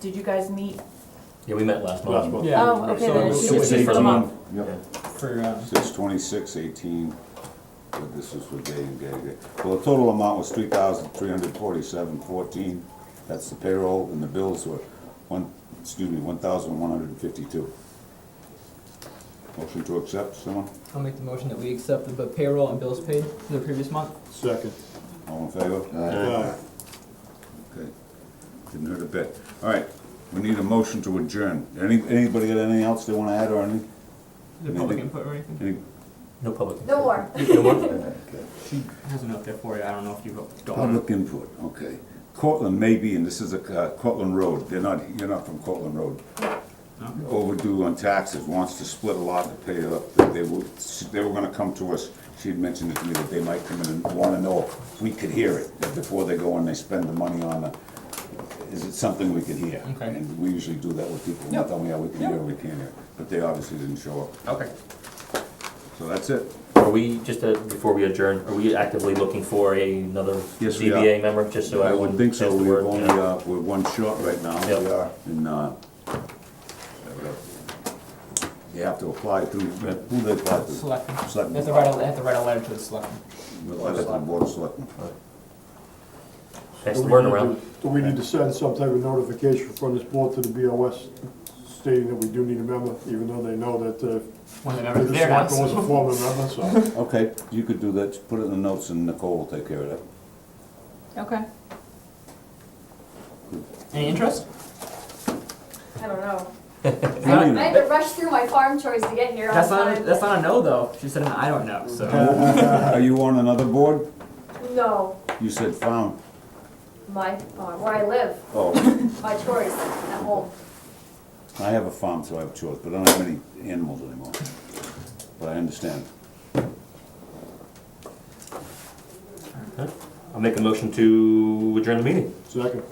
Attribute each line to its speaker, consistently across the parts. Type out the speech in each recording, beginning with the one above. Speaker 1: did you guys meet?
Speaker 2: Yeah, we met last month.
Speaker 3: Last month.
Speaker 4: Yeah.
Speaker 1: Oh, okay,
Speaker 4: so
Speaker 1: then it
Speaker 4: was-
Speaker 1: should be
Speaker 2: was
Speaker 1: for the
Speaker 2: 18.
Speaker 1: month.
Speaker 2: Yeah.
Speaker 5: Yep,
Speaker 4: For, uh,
Speaker 5: so it's twenty-six eighteen, but this is for day and day, day. Well, the total amount was three thousand three hundred forty-seven fourteen, that's the payroll, and the bills were one, excuse me, one thousand one hundred and fifty-two. Motion to accept, someone,
Speaker 4: I'll make the motion that we accept the payroll and bills paid for the previous month.
Speaker 3: Second.
Speaker 5: all in favor?
Speaker 3: Aye.
Speaker 5: Okay, didn't hurt a bit. All right, we need a motion to adjourn. Any, anybody got anything else they wanna add or any,
Speaker 4: Is there public input or anything?
Speaker 5: any?
Speaker 2: No public.
Speaker 6: No more.
Speaker 2: No more?
Speaker 5: Okay.
Speaker 4: She has a note there for you, I don't know if you wrote, don't.
Speaker 5: Public input, okay. Cortland may be, and this is a, uh, Cortland Road, they're not, you're not from Cortland Road.
Speaker 4: No?
Speaker 5: Overdue on taxes, wants to split a lot to pay it up. They were, they were gonna come to us, she had mentioned it to me that they might come in and wanna know if we could hear it before they go and they spend the money on the, is it something we could hear?
Speaker 4: Okay.
Speaker 5: And we usually do that with people,
Speaker 4: Yeah.
Speaker 5: not only, yeah, we can hear, we can hear, but they obviously didn't show up.
Speaker 4: Okay.
Speaker 5: So that's it.
Speaker 2: Are we, just uh, before we adjourn, are we actively looking for a- another
Speaker 5: Yes, we are.
Speaker 2: ZBA member, just so
Speaker 5: I
Speaker 2: everyone
Speaker 5: would think so,
Speaker 2: has the
Speaker 5: we're
Speaker 2: word?
Speaker 5: only,
Speaker 2: yeah.
Speaker 5: uh, we're one short right now,
Speaker 2: Yep.
Speaker 5: we are, and, uh, you have to apply through, uh, who they apply to?
Speaker 4: Selectmen. They
Speaker 5: Selectmen.
Speaker 4: have to write a, they have to write a letter to the selectmen.
Speaker 5: We'll apply to the Board of Selectmen.
Speaker 2: Pass the word around.
Speaker 3: Do we need to send some type of notification from this board to the BOS stating that we do need a member, even though they know that, uh,
Speaker 4: One
Speaker 3: the
Speaker 4: of the members there
Speaker 3: selectman was
Speaker 4: has.
Speaker 3: a former member, so.
Speaker 5: Okay, you could do that, just put it in the notes and Nicole will take care of that.
Speaker 1: Okay.
Speaker 4: Any interest?
Speaker 6: I don't know. I
Speaker 5: No, you
Speaker 6: I
Speaker 5: don't.
Speaker 6: had to rush through my farm chores to get here on
Speaker 4: That's not, a-
Speaker 6: time.
Speaker 4: that's not a no though, she said an I don't know, so.
Speaker 5: Are you on another board?
Speaker 6: No,
Speaker 5: You said found,
Speaker 6: my farm, where I live,
Speaker 5: oh,
Speaker 6: my chores at home.
Speaker 5: I have a farm, so I have chores, but I don't have any animals anymore, but I understand.
Speaker 2: I'll make a motion to adjourn the meeting.
Speaker 3: Second.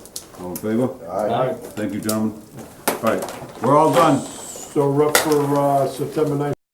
Speaker 5: All in favor?
Speaker 3: Aye.
Speaker 5: Thank you, gentlemen. All right, we're all done.
Speaker 3: So we're up for, uh, September nineteenth.